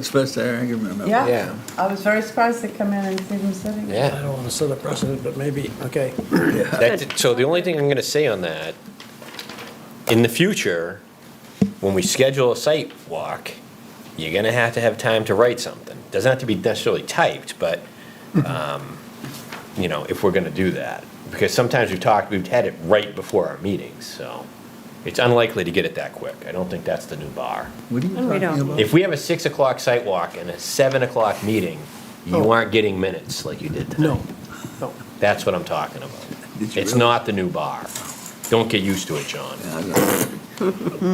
Express there, I can remember. Yeah. Yeah. I was very surprised to come in and see them sitting. I Yeah. don't want to set a precedent, but maybe, okay. That- So the only thing I'm going to say on that, in the future, when we schedule a site walk, you're going to have to have time to write something. Doesn't have to be necessarily typed, but, um, you know, if we're going to do that. Because sometimes we've talked, we've had it right before our meetings, so it's unlikely to get it that quick. I don't think that's the new bar. What are you And we talking don't. about? If we have a six o'clock site walk and a seven o'clock meeting, you aren't getting minutes like you did tonight. No, no. That's what I'm talking about. Did you It's really? not the new bar. Don't get used to it, John. Yeah, I got it.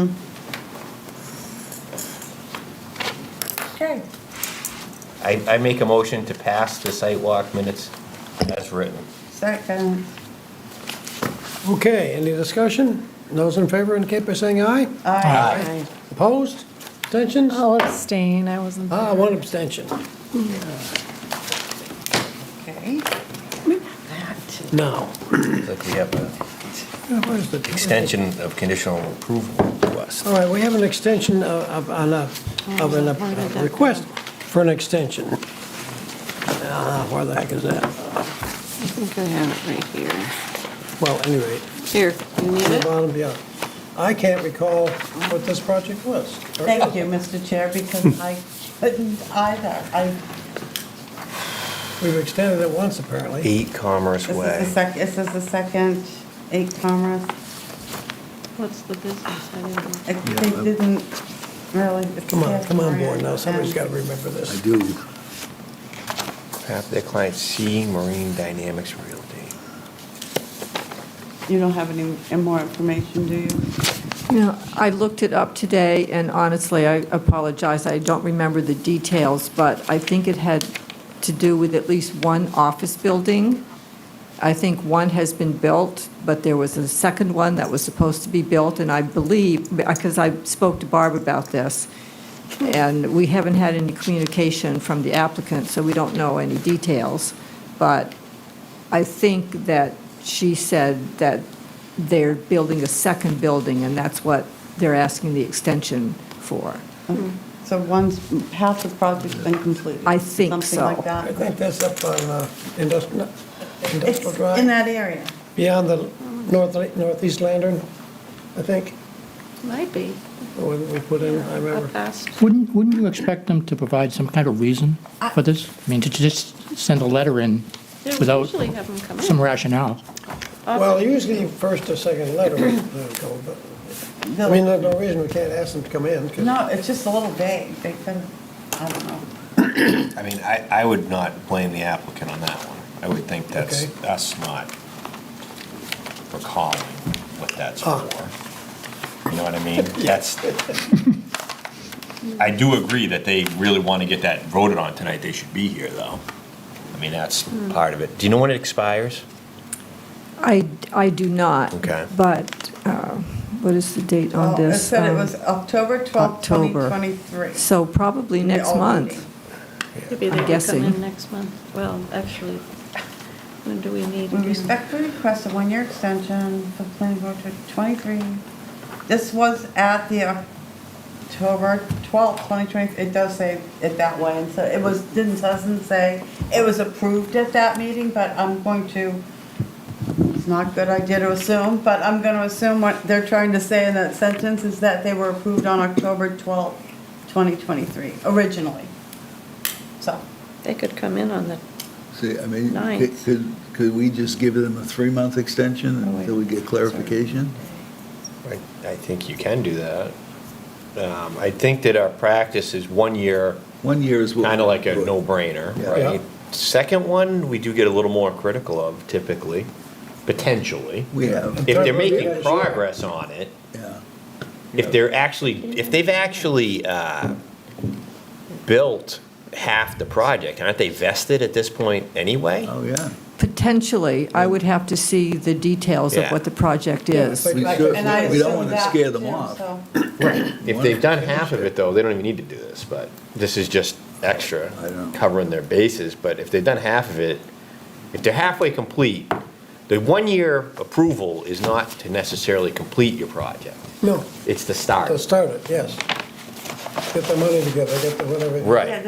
Okay. I, I make a motion to pass the site walk minutes as written. Second. Okay, any discussion? Those in favor indicate by saying aye. Aye. Opposed? Abstentions? I'll abstain, I wasn't Ah, there. one abstention. Okay. No. Like we have an Yeah, where's the- extension of conditional approval request. Oh. All right, we have an extension of, of on a- of an- Oh, a request for an extension. Ah, Where the heck is that? I think I have it right here. Well, anyway, Here, you need on the it? bottom, yeah. I can't recall what this project was. Thank you, Mr. Chair, because I couldn't either. I, We've extended it once, apparently. Eight Commerce this is the Way. sec, this is the second eight Commerce. What's the business? I didn't- It- They Yeah. didn't really. Come on, come on board now, somebody's got to remember I this. do. Half their clients, C Marine Dynamics Realty. You don't have any any more information, do you? No, I looked it up today, and honestly, I apologize, I don't remember the details, but I think it had to do with at least one office building. I think one has been built, but there was a second one that was supposed to be built, and I believe, because I spoke to Barb about this, and we haven't had any communication from the applicant, so we don't know any details, but I think that she said that they're building a second building, and that's what they're asking the extension for. So once, half the project's been completed. I think Something so. like I that. think that's up on uh, Industrial It's Industrial in Drive, that area. beyond the north northeast lantern, I think, Might be, or we put in, I up remember. past. Wouldn't, wouldn't you expect them to provide some kind of reason for this? I mean, to just send a letter in They don't without usually have them come some in. rationale? Well, usually first or second letter would go, but, I mean, there's no reason we can't ask them to come in, 'cause- No, it's just a little vague. They could, I don't know. I mean, I, I would not blame the applicant on that one. I would think that's Okay. us not recalling what that's for. Ah. You know what I mean? That's, I do agree that they really want to get that voted on tonight. They should be here, though. I mean, that's part of it. Do you know when it expires? I, I do not. Okay. But uh, what is the date Well, on this? It said it Um, was October 12th, October. 2023. So probably The next old month. meeting. Maybe I'm they will come guessing. in next month. Well, actually, when do we need? We respectfully request a one-year extension for planning board to 23. This was at the October 12th, 2023. It does say it that way, and so it was, didn't, doesn't say, it was approved at that meeting, but I'm going to, it's not a good idea to assume, but I'm going to assume what they're trying to say in that sentence is that they were approved on October 12th, 2023, originally. So, They could come in on the, See, I mean, c- Ninth. could, could we just give them a three-month extension Oh, until we get clarification? I, I think you can do that. Um, I think that our practice is one year, One year is what. kind of like a no-brainer, Yeah. right? Second one, we do get a little more critical of typically, potentially. We have, If they're Yeah, making sure. progress on it, yeah. if they're actually, if they've actually uh, built half the project, aren't they vested at this point anyway? Oh, yeah. Potentially, I would have to see the details of Yeah. what the project is. We Like- should- and I we don't assume want to that, scare them too, off. so. If they've done half of it, though, they don't even need to do this, but this is just extra, I know. covering their bases. But if they've done half of it, if they're halfway complete, the one-year approval is not to necessarily complete your project. no, It's the start. to start it, yes. get the money together, get the whatever. Right.